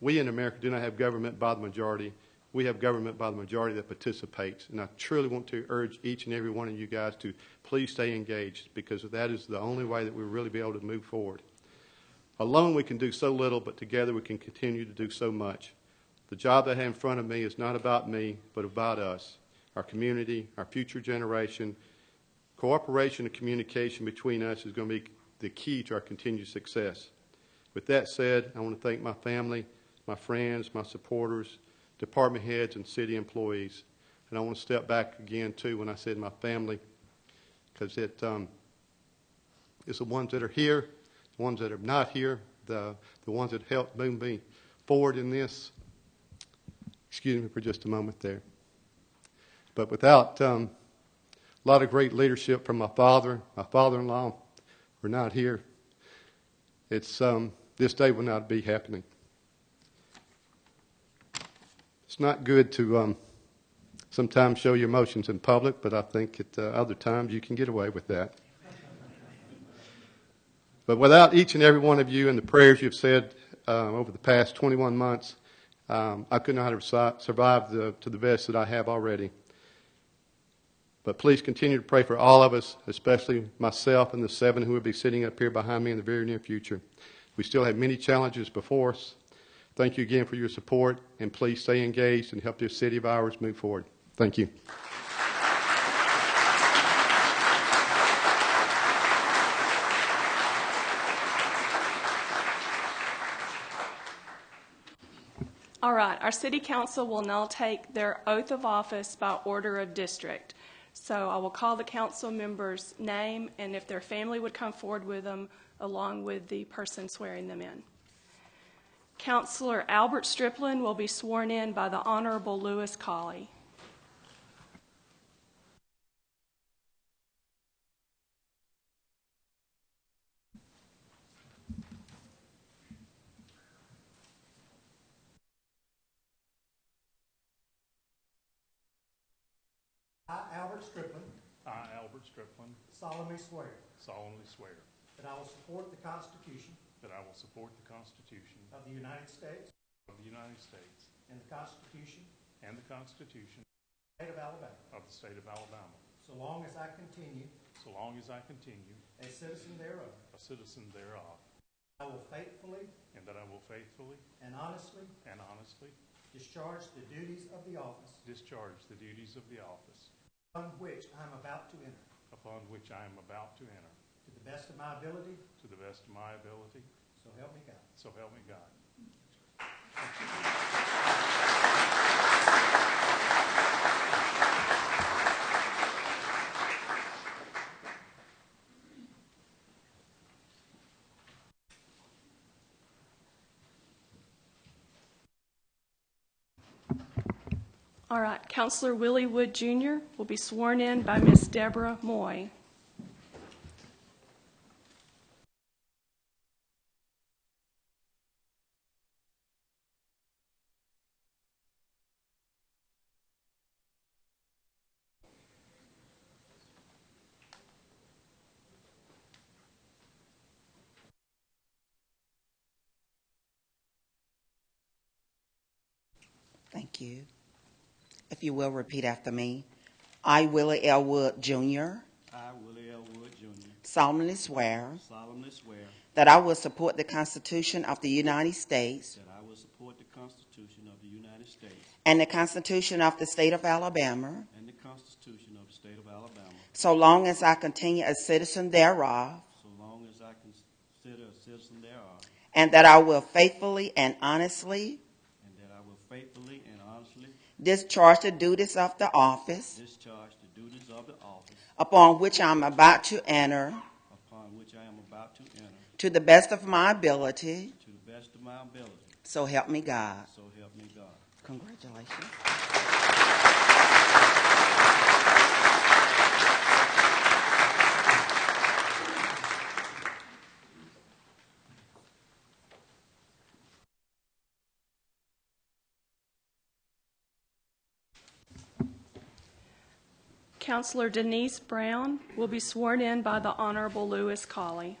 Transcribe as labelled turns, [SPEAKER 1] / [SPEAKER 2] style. [SPEAKER 1] We in America do not have government by the majority. We have government by the majority that participates. And I truly want to urge each and every one of you guys to please stay engaged because that is the only way that we'll really be able to move forward. Alone, we can do so little, but together we can continue to do so much. The job that I have in front of me is not about me, but about us, our community, our future generation. Cooperation and communication between us is going to be the key to our continued success. With that said, I want to thank my family, my friends, my supporters, department heads, and city employees. And I want to step back again, too, when I said my family, because it, um, it's the ones that are here, the ones that are not here, the, the ones that helped move me forward in this. Excuse me for just a moment there. But without um, a lot of great leadership from my father, my father in law, we're not here. It's, um, this day will not be happening. It's not good to um, sometimes show your emotions in public, but I think at uh, other times you can get away with that. But without each and every one of you and the prayers you've said um, over the past 21 months, um, I could not have si- survived the, to the best that I have already. But please continue to pray for all of us, especially myself and the seven who will be sitting up here behind me in the very near future. We still have many challenges before us. Thank you again for your support, and please stay engaged and help this city of ours move forward. Thank you.
[SPEAKER 2] All right, our city council will now take their oath of office by order of district. So I will call the council member's name, and if their family would come forward with them, along with the person swearing them in. Counselor Albert Striplin will be sworn in by the Honorable Lewis Colley.
[SPEAKER 3] I, Albert Strickland,
[SPEAKER 4] I, Albert Strickland,
[SPEAKER 3] solemnly swear
[SPEAKER 4] solemnly swear
[SPEAKER 3] that I will support the Constitution
[SPEAKER 4] that I will support the Constitution
[SPEAKER 3] of the United States
[SPEAKER 4] of the United States
[SPEAKER 3] and the Constitution
[SPEAKER 4] and the Constitution
[SPEAKER 3] of the State of Alabama,
[SPEAKER 4] of the State of Alabama,
[SPEAKER 3] so long as I continue
[SPEAKER 4] so long as I continue
[SPEAKER 3] a citizen thereof.
[SPEAKER 4] a citizen thereof,
[SPEAKER 3] I will faithfully
[SPEAKER 4] and that I will faithfully
[SPEAKER 3] and honestly
[SPEAKER 4] and honestly
[SPEAKER 3] discharge the duties of the office
[SPEAKER 4] discharge the duties of the office
[SPEAKER 3] upon which I am about to enter,
[SPEAKER 4] upon which I am about to enter,
[SPEAKER 3] to the best of my ability,
[SPEAKER 4] to the best of my ability,
[SPEAKER 3] so help me God.
[SPEAKER 4] so help me God.
[SPEAKER 2] All right, Counselor Willie Wood Jr. will be sworn in by Miss Deborah Moy.
[SPEAKER 5] Thank you. If you will repeat after me. I, Willie L. Wood Jr.,
[SPEAKER 6] I, Willie L. Wood, Jr.,
[SPEAKER 5] solemnly swear
[SPEAKER 6] solemnly swear
[SPEAKER 5] that I will support the Constitution of the United States
[SPEAKER 6] that I will support the Constitution of the United States
[SPEAKER 5] and the Constitution of the State of Alabama
[SPEAKER 6] and the Constitution of the State of Alabama,
[SPEAKER 5] so long as I continue a citizen thereof,
[SPEAKER 6] so long as I consider a citizen thereof,
[SPEAKER 5] and that I will faithfully and honestly
[SPEAKER 6] and that I will faithfully and honestly
[SPEAKER 5] discharge the duties of the office
[SPEAKER 6] discharge the duties of the office
[SPEAKER 5] upon which I'm about to enter
[SPEAKER 6] upon which I am about to enter,
[SPEAKER 5] to the best of my ability.
[SPEAKER 6] to the best of my ability,
[SPEAKER 5] So help me God.
[SPEAKER 6] so help me God.
[SPEAKER 5] Congratulations.
[SPEAKER 2] Counselor Denise Brown will be sworn in by the Honorable Lewis Colley.